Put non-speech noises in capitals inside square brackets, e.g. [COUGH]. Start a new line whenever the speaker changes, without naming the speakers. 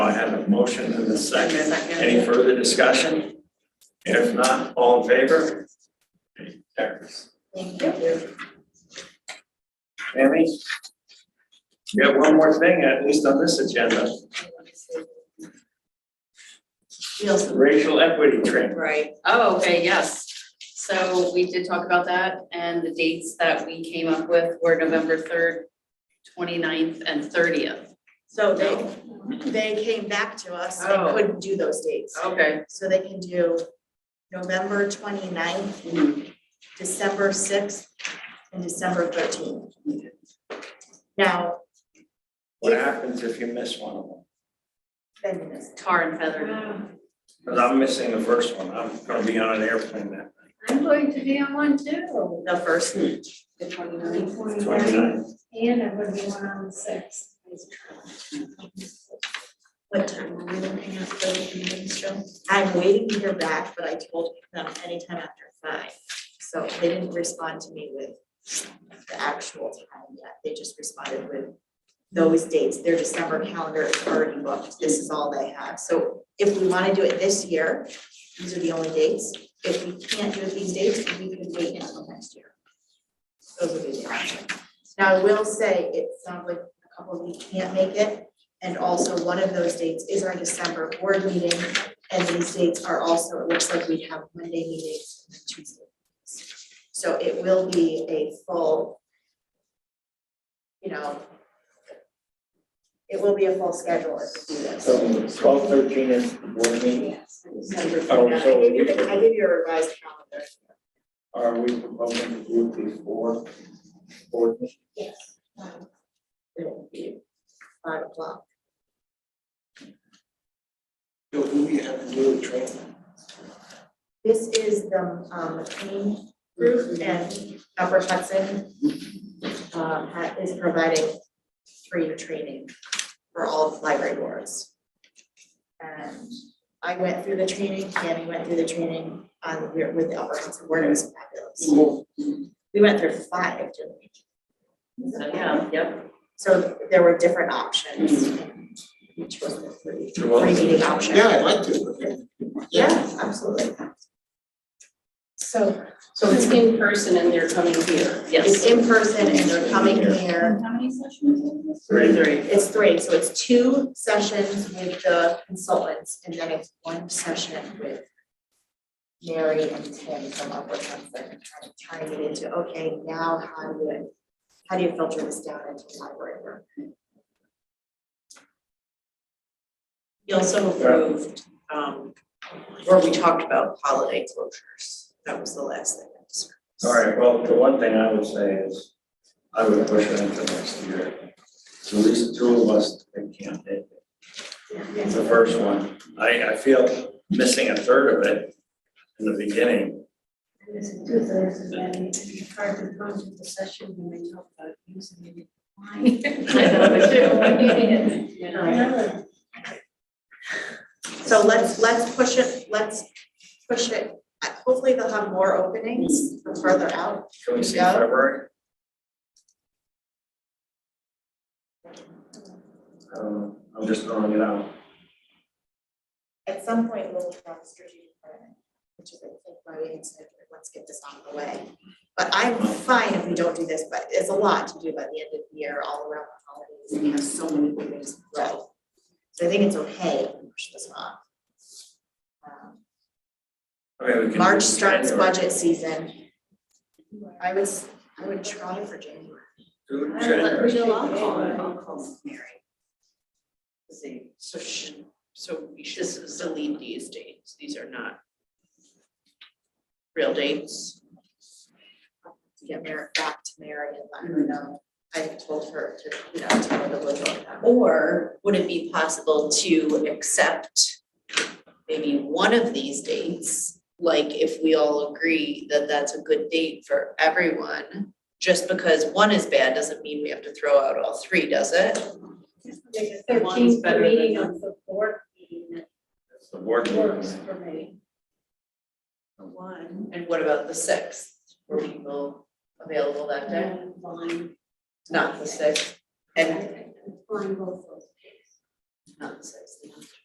motion and a second.
Second.
Any further discussion? If not, all in favor? Okay, carries.
Thank you.
Tammy? You have one more thing, at least on this agenda,
Feels
racial equity training.
Right, oh, okay, yes. So we did talk about that and the dates that we came up with were November third, 29th, and thirtieth.
So they, they came back to us, they
Oh.
couldn't do those dates.
Okay.
So they can do November 29th, December sixth, and December thirteenth. Now,
What happens if you miss one of them?
then this,
Tar and feather.
Because I'm missing the first one. I'm gonna be on an airplane that
I'm going to be on one too.
the first,
The 29th.
twenty-nine.
And I'm gonna be one on the sixth.
what time are we looking at for the meetings, Joe? I'm waiting to hear back, but I told them anytime after five, so they didn't respond to me with the actual time yet, they just responded with those dates, their December calendar is already booked, this is all they have, so if we wanna do it this year, these are the only dates, if we can't do it these dates, we could wait until next year. Those would be the options. Now, I will say, it sounds like a couple of you can't make it, and also one of those dates is our December board meeting. And these dates are also, it looks like we have Monday meetings and then Tuesday. meetings. So it will be a full, you know, it will be a full schedule if we do this.
So twelve thirteen is the board meeting.
December
Oh,
29th.
so-
I gave you, the- I gave you a revised calendar.
Are we proposing to do it before board meeting?
Yes. It will be five o'clock.
So who we have to do the training?
This is the um, McLean Group and Upper Hudson um, ha- is providing free training for all library boards. And I went through the training, Tammy went through the training on, with the Upper Hudson Board, it was fabulous. We went through five, didn't we?
So, yeah, yep.
So there were different options. and Each was a free, free meeting option.
I'd like to.
Yeah, absolutely. So
So it's in person and they're coming here.
it's
Yes.
in person and they're coming here.
How many sessions?
Three.
It's three, so it's two sessions with the consultants and then it's one session with Mary and Tim from Upward Hudson, trying to tie it into, okay, now how do you, how do you filter this down into library work?
We also approved, um, where we talked about holiday closures. That was the last thing I discussed.
All right, well, the one thing I would say is, I would push it into next year. So at least two of us that can't make it. It's the first one. I, I feel missing a third of it in the
[LAUGHS]
beginning.
There's a two thirds of that, it's hard to come to the session when we talk about using it. Why?
So let's, let's push it, let's push it, Uh, hopefully they'll have more openings from further out.
Can we see
Yeah.
February? I don't know. Um, I'm just throwing it out.
At some point, we'll have a strategic plan, which is, I think, why we had said, let's get this out of the way. But I'm fine if we don't do this, but it's a lot to do by the end of the year, all around the holidays, and we have so many meetings to go. So I think it's okay if we push this off. Um,
Okay, we can. do
March starts
January.
budget season. I was, I would try for January.
Do January.
I'll
call her.
I'll call.
Mary. See, so sh so we should delete these dates, these are not real dates.
to get Mary back to Mary and let
Mm-hmm.
her know. I told her to, you know, tell her to look at that.
Or would it be possible to accept maybe one of these dates? Like if we all agree that that's a good date for everyone, just because one is bad doesn't mean we have to throw out all three, does it?
The
One's
thirteenth
better than
meeting
the-
of the board meeting
The board
that
meeting.
works for me.
One. And what about the sixth? Were people available that day?
And Line.
Not the sixth, and
Line both those.
not the sixth.